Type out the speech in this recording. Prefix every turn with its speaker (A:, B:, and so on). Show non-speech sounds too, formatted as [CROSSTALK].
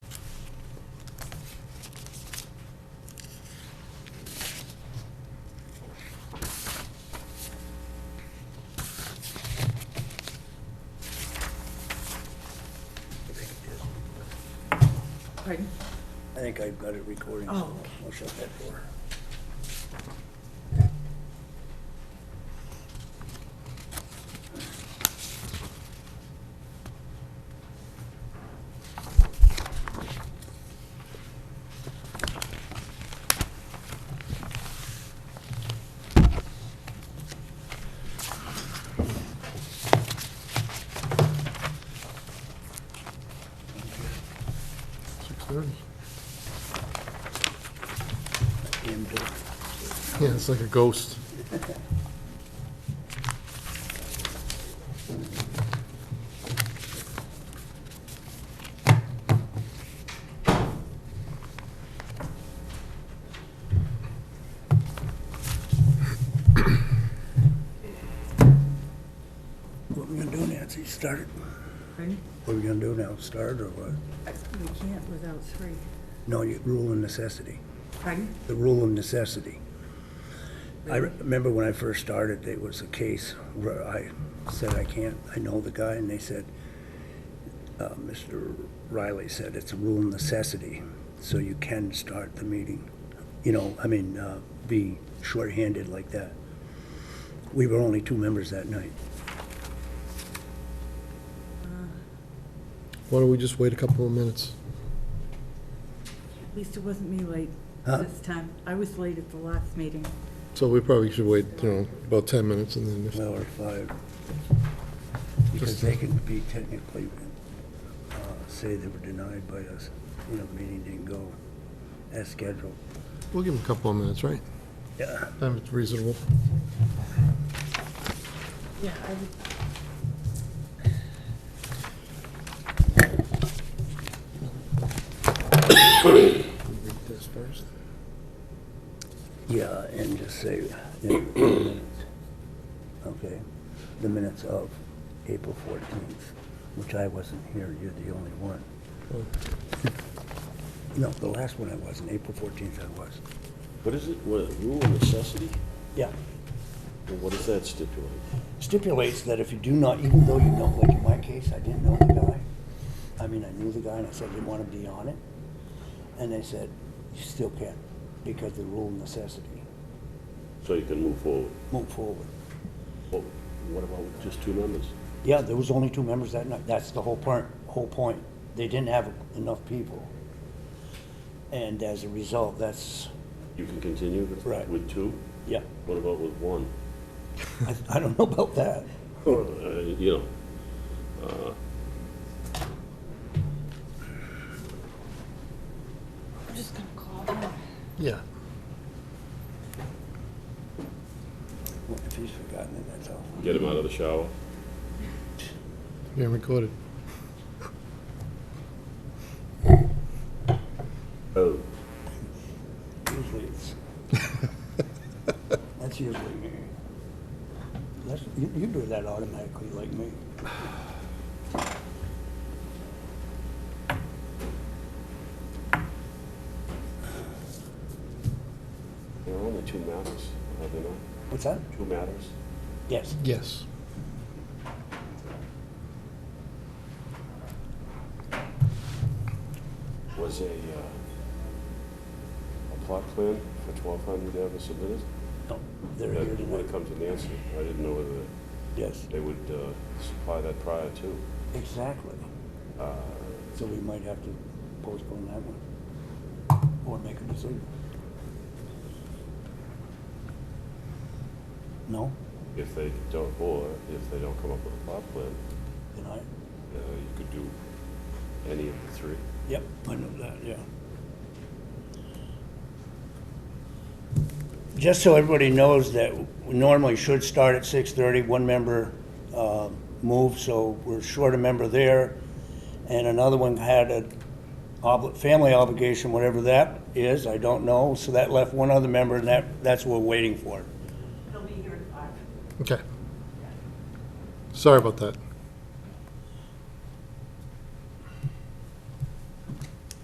A: Pardon?
B: I think I've got it recording, so
A: Oh,
B: I'll shut that door.
C: Six thirty.
B: Him too.
C: Yeah, it's like a ghost.
B: What we gonna do, Nancy? Start it?
A: Pardon?
B: What we gonna do now? Start or what?
A: I- We can't without three.
B: No, you, rule of necessity.
A: Pardon?
B: The rule of necessity. I re- remember when I first started, it was a case where I said, I can't, I know the guy, and they said, uh, Mr. Riley said, it's a rule of necessity, so you can start the meeting. You know, I mean, uh, be shorthanded like that. We were only two members that night.
C: Why don't we just wait a couple of minutes?
A: At least it wasn't me late
B: Huh?
A: this time. I was late at the last meeting.
C: So we probably should wait, you know, about ten minutes and then just,
B: Well, or five. Because they can be technically, uh, say they were denied by us, you know, the meeting didn't go as scheduled.
C: we'll give them a couple of minutes, right?
B: Yeah.
C: Time is reasonable.
A: Yeah, I would.
C: Read this first.
B: Yeah, Uh, and just say, you know, the minutes. okay, the minutes of April 14th, which I wasn't here, you're the only one. No, the last one I wasn't, April 14th I was.
D: What is it, what, rule of necessity?
B: Yeah.
D: Well, What does that stipulate?
B: stipulates that if you do not, even though you know, like in my case, I didn't know the guy. I mean, I knew the guy and I said, I didn't want to be on it. And they said, you still can, because the rule of necessity,
D: So you can move forward.
B: move forward.
D: Well, what about with just two members?
B: Yeah, there was only two members that night, that's the whole part, whole point. They didn't have enough people. And as a result, that's,
D: You can continue with-
B: Right.
D: with two?
B: yeah,
D: What about with
B: [LAUGHS]
D: one?
B: I, I don't know about that.
D: Or, uh, you know,
A: I'm just gonna call her.
C: Yeah.
B: Well, If he's forgotten it, that's all.
D: get him out of the shower?
C: Yeah, recorded.
D: Oh,
B: Usually it's. That's usually me. That's, you, you do that automatically like me.
D: there are only two matters, are there not?
B: What's that?
D: Two matters?
B: Yes.
C: Yes.
D: Was a, uh, a plot plan for twelve hundred ever submitted?
B: No, Oh, they're here
D: That would have
B: tonight.
D: come to Nancy. I didn't know whether
B: Yes,
D: they would uh, supply that prior to.
B: exactly. So we might have to postpone that one or make a decision. No?
D: If they don't, or if they don't come up with a plot plan,
B: Then I,
D: Uh, You could do any of the three.
B: yep, I know that, yeah. Just so everybody knows that we normally should start at 6:30, one member uh, moved, so we're short a member there. And another one had a obli- family obligation, whatever that is, I don't know. So that left one other member, and that, that's what we're waiting for.
C: Okay. Sorry about that.